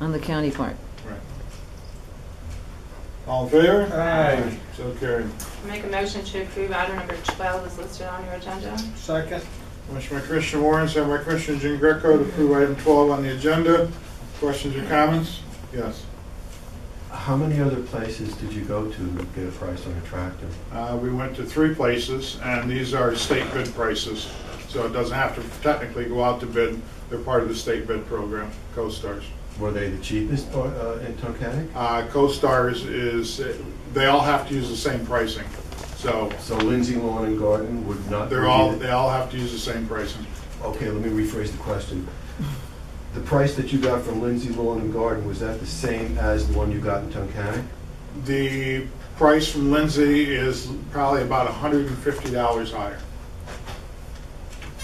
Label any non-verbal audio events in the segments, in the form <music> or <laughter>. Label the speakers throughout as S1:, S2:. S1: on the county part.
S2: Right. All in favor?
S3: Aye.
S2: So carried.
S4: Make a motion to approve item number 12 is listed on your agenda.
S3: Second.
S2: Motion by Commissioner Warren, second by Commissioner Jean Greco to approve item 12 on the agenda. Questions or comments? Yes.
S5: How many other places did you go to get a price on a tractor?
S2: Uh, We went to three places, and these are state bid prices, so it doesn't have to technically go out to bid. They're part of the state bid program, CoStarz.
S5: Were they the cheapest uh, in Tunkhannock?
S2: Uh, CoStarz is, they all have to use the same pricing, so
S5: So Lindsay Lawn and Garden would not.
S2: they're
S5: be
S2: all,
S5: the-
S2: they all have to use the same pricing.
S5: Okay, let me rephrase the question. The price that you got from Lindsay Lawn and Garden, was that the same as the one you got in Tunkhannock?
S2: The price from Lindsay is probably about $150 higher.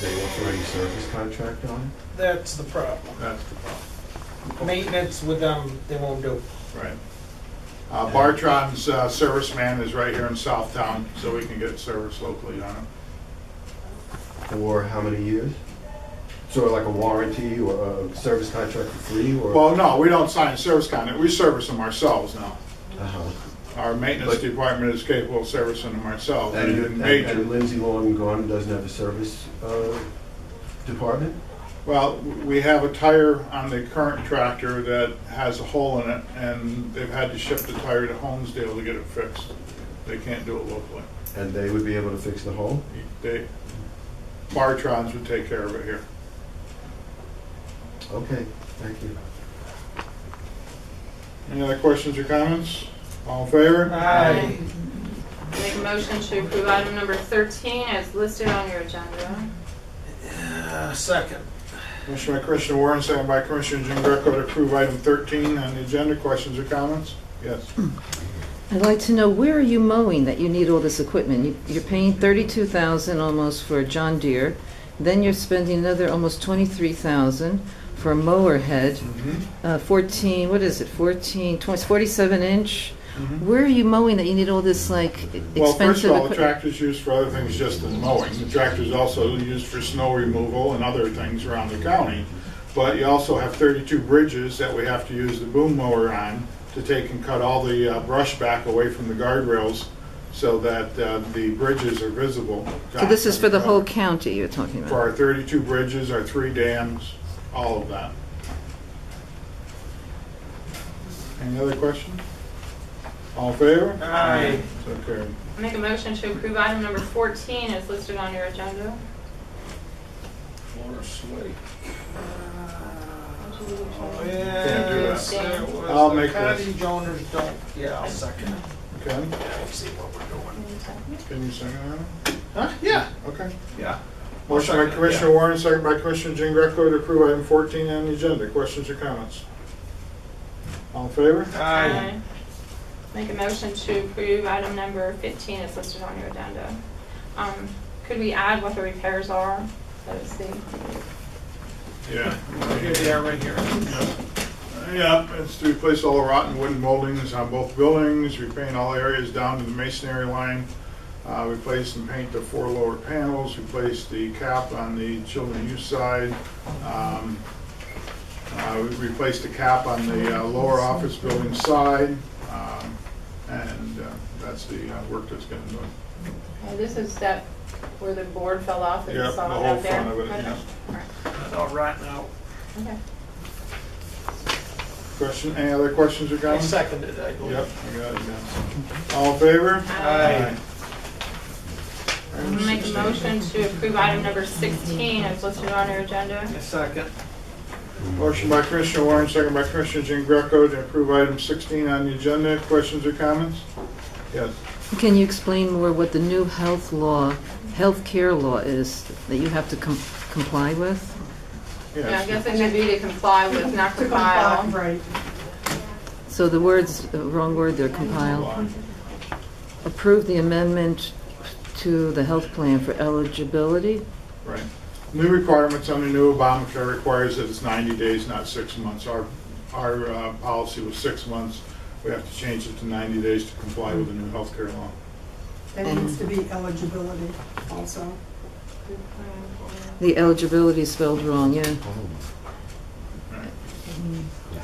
S5: They were for any service contract on
S3: That's the problem.
S2: That's the problem.
S3: Maintenance with them, they won't do.
S2: Right. Uh, Bartron's uh, serviceman is right here in Southtown, so we can get service locally on it.
S5: it? For how many years? Sort of like a warranty or a service contract for free or?
S2: Well, no, we don't sign a service contract, we service them ourselves now.
S5: Uh-huh.
S2: Our maintenance
S5: But-
S2: department is capable of servicing them ourselves.
S5: And
S2: Anything
S5: and-
S2: major.
S5: and Lindsay Lawn and Garden doesn't have a service uh, department?
S2: Well, we have a tire on the current tractor that has a hole in it, and they've had to ship the tire to Holmesdale to get it fixed. They can't do it locally.
S5: And they would be able to fix the hole?
S2: They, Bartron's would take care of it here.
S5: Okay, thank you.
S2: Any other questions or comments? All in favor?
S3: Aye.
S4: Make a motion to approve item number 13 as listed on your agenda.
S3: Uh, Second.
S2: Motion by Commissioner Warren, second by Commissioner Jean Greco to approve item 13 on the agenda. Questions or comments?
S1: <clears throat>
S2: Yes.
S1: I'd like to know, where are you mowing that you need all this equipment? You- You're paying 32,000 almost for a John Deere, then you're spending another almost 23,000 for a mower head,
S2: Mm-hmm.
S1: uh, 14, what is it, 14, 20, 47 inch?
S2: Mhm.
S1: Where are you mowing that you need all this like e- expensive equipment?
S2: Well, first of all, the tractor's used for other things just than mowing. The tractor's also used for snow removal and other things around the county. But you also have 32 bridges that we have to use the boom mower on to take and cut all the uh, brush back away from the guardrails so that uh, the bridges are visible.
S1: So this is for the whole county you're talking
S2: For
S1: about?
S2: our 32 bridges, our three dams, all of that. Any other questions? All in favor?
S3: Aye.
S2: So carried.
S4: Make a motion to approve item number 14 as listed on your agenda.
S3: Uh, Yes, it was
S2: I'll
S3: the
S2: make this.
S3: Cottage owners don't, yeah, I'll second it.
S2: Okay,
S3: See what we're doing.
S2: can you second that?
S3: Huh? Yeah.
S2: Okay.
S3: Yeah.
S2: Motion by Commissioner Warren, second by Commissioner Jean Greco to approve item 14 on the agenda. Questions or comments? All in favor?
S3: Aye.
S4: Make a motion to approve item number 15 as listed on your agenda. Um, Could we add what the repairs are? Let us see.
S2: Yeah.
S3: Here they are right here.
S2: Yeah, it's to replace all the rotten wooden moldings on both buildings, repaint all areas down to the masonry line, uh, replace and paint the four lower panels, replace the cap on the children youth side, um, uh, we replaced the cap on the uh, lower office building side, um, and uh, that's the uh, work that's gonna be done.
S4: Uh, This is that where the board fell off that
S2: Yeah,
S4: you saw
S2: the
S4: out
S2: whole
S4: there?
S2: front of it,
S4: Okay.
S2: yeah.
S4: All right.
S3: All right now.
S4: Okay.
S2: Question, any other questions or
S3: I
S2: comments?
S3: seconded it, I believe.
S2: Yep, I got it, yeah. All in favor?
S3: Aye.
S2: Item
S4: I'll Um, Make a
S2: 16.
S4: motion to approve item number 16 as listed on your agenda.
S3: I second.
S2: Motion by Commissioner Warren, second by Commissioner Jean Greco to approve item 16 on the agenda. Questions or comments? Yes.
S1: Can you explain more what the new health law, health care law is that you have to com- comply with?
S4: Yeah, I
S2: Yes.
S4: guess it should be to comply with, not
S6: To comply,
S4: compile.
S6: Right.
S1: So the words, the wrong word, they're compiled. Approve the amendment to the health plan for eligibility?
S2: Right. New requirements on the new Obamacare requires that it's 90 days, not six months. Our, our uh, policy was six months. We have to change it to 90 days to comply with the new healthcare law.
S6: There needs to be eligibility also.
S1: The eligibility is spelled wrong, yeah.
S2: Right.